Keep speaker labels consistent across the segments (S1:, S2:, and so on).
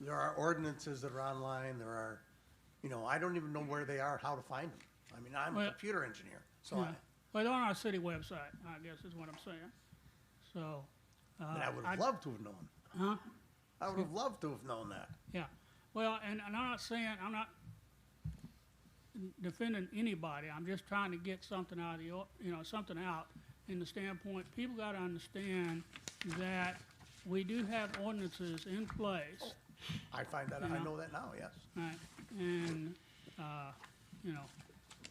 S1: There are ordinances that are online, there are, you know, I don't even know where they are, how to find them. I mean, I'm a
S2: Well-
S1: computer engineer, so I,
S2: Well, they're on our city website, I guess is what I'm saying. So,
S1: but I would have loved to have known.
S2: uh, huh?
S1: I would have loved to have known that.
S2: Yeah. Well, and, and I'm not saying, I'm not defending anybody. I'm just trying to get something out of the, or- you know, something out in the standpoint, people gotta understand that we do have ordinances in place,
S1: I find that, I
S2: Yeah.
S1: know that now, yes.
S2: right? And, uh, you know,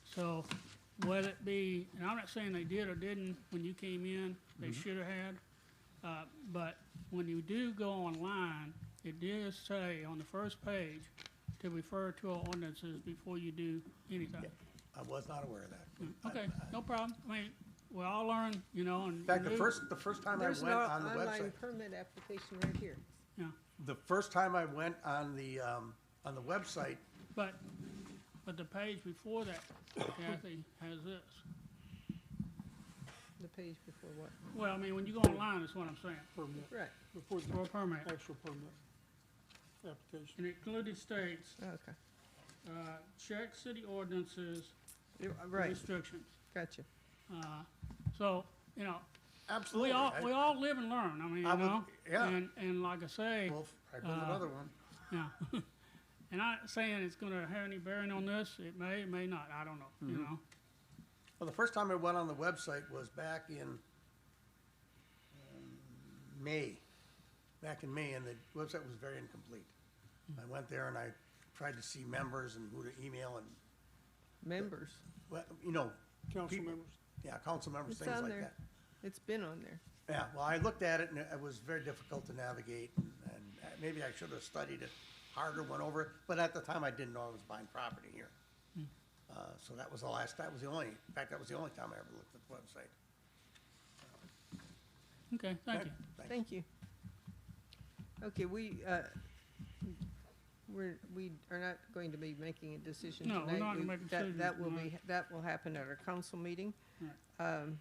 S2: so whether it be, and I'm not saying they did or didn't when you came in, they
S1: Mm-hmm.
S2: should have had. Uh, but when you do go online, it does say on the first page to refer to our ordinances before you do anything.
S1: I was not aware of that.
S2: Mm, Okay, no problem. I mean, we all learn, you know, and.
S1: In fact, the
S2: new-
S1: first, the first time I
S3: There's
S1: went
S3: an
S1: on the
S3: online
S1: website,
S3: permit application right here.
S2: Yeah,
S1: the first time I went on the, um, on the website,
S2: but, but the page before that, Kathy, has this.
S3: The page before what?
S2: Well, I mean, when you go online, is what I'm saying,
S4: permit,
S3: Right,
S4: before the
S2: for a permit.
S4: actual permit application.
S2: And it clearly states,
S3: Oh, okay.
S2: uh, check city ordinances
S3: You-
S2: for
S3: uh, Right,
S2: restrictions.
S3: gotcha.
S2: Uh, So, you know, we
S1: absolutely.
S2: all,
S1: I-
S2: we all live and learn, I mean, you
S1: I would-
S2: know?
S1: yeah.
S2: And, and like I say,
S1: Well, I built
S2: uh,
S1: another one.
S2: yeah. And I'm not saying it's gonna have any bearing on this, it may, it may not, I don't know,
S3: Mm-hmm.
S2: you know?
S1: Well, the first time I went on the website was back in um, May, back in May, and the website was very incomplete. I went there and I tried to see members and who to email and,
S3: Members,
S1: well, you know,
S4: Council
S1: people-
S4: members,
S1: yeah, council members,
S3: It's
S1: things
S3: on
S1: like
S3: there.
S1: that.
S3: it's been on there.
S1: Yeah, well, I looked at it and it was very difficult to navigate and, and maybe I should have studied it harder, went over it, but at the time I didn't know I was buying property here.
S4: Hmm.
S1: Uh, so that was the last, that was the only, in fact, that was the only time I ever looked at the website.
S2: Okay, thank you.
S1: Thank you.
S3: Thank you. Okay, we, uh, we're, we are not going to be making a decision
S2: No,
S3: tonight.
S2: we're not gonna
S3: We-
S2: make a
S3: that-
S2: decision
S3: That will be,
S2: tonight.
S3: that will happen at our council meeting.
S2: Right.
S3: Um,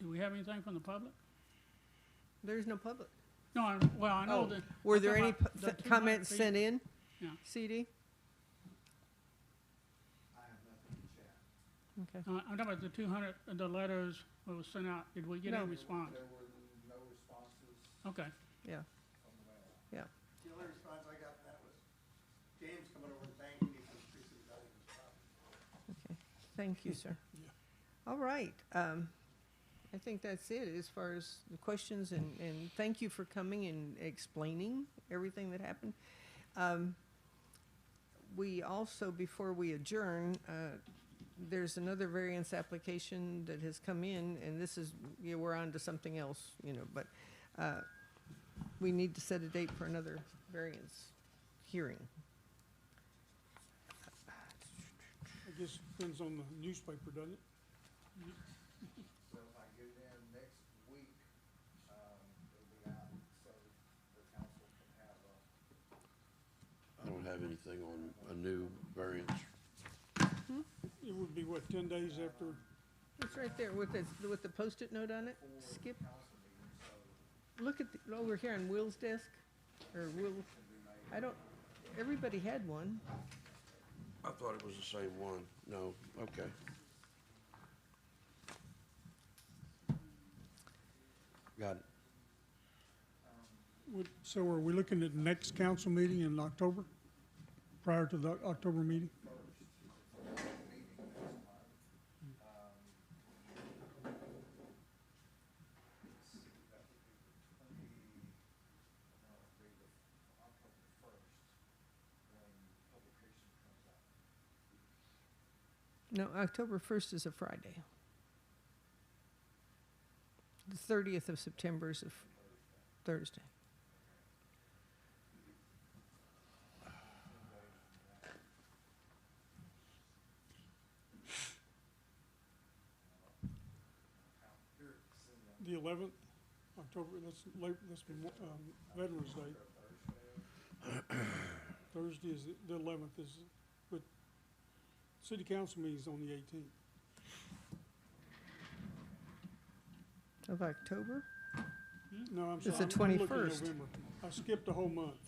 S2: Do we have anything from the public?
S3: There's no public.
S2: No, I, well, I know
S3: Oh,
S2: that.
S3: Were
S2: I'm
S3: there
S2: talking
S3: any
S2: about
S3: pu-
S2: the
S3: th-
S2: 200
S3: comments
S2: feet.
S3: sent in?
S2: Yeah.
S3: CD? Okay,
S2: Uh, I'm talking about the two hundred, the letters that was sent out, did we get
S3: No.
S2: any response?
S5: There were no responses
S2: Okay,
S3: yeah,
S5: from the landlord.
S3: yeah.
S1: The only response I got from that was James coming over and thanking me for increasing the value of his property.
S3: Okay, thank you, sir. All right, um, I think that's it as far as the questions and, and thank you for coming and explaining everything that happened. Um, we also, before we adjourn, uh, there's another variance application that has come in and this is, yeah, we're on to something else, you know, but, uh, we need to set a date for another variance hearing.
S4: I guess it depends on the newspaper, doesn't it?
S5: So if I get it in next week, um, it'll be out, so the council can have a
S6: I don't have anything on a new variance.
S4: It would be, what, ten days after,
S3: It's right there with the, with the post-it note on it, skip. Look at, the- over here on Will's desk, or Will, I don't, everybody had one.
S6: I thought it was the same one. No, okay. Got it.
S4: would, so are we looking at the next council meeting in October? Prior to the October meeting?
S3: No, October first is a Friday. The thirtieth of September is a f- Thursday.
S4: The eleventh, October, that's, late. that's, um, Veterans Day. Thursday is, the eleventh is, but city council meeting's on the eighteenth.
S3: Of October?
S4: No, I'm
S3: It's
S4: sorry.
S3: the
S4: I'm- I'm looking at
S3: 21st.
S4: Hmm? November. I skipped a whole month.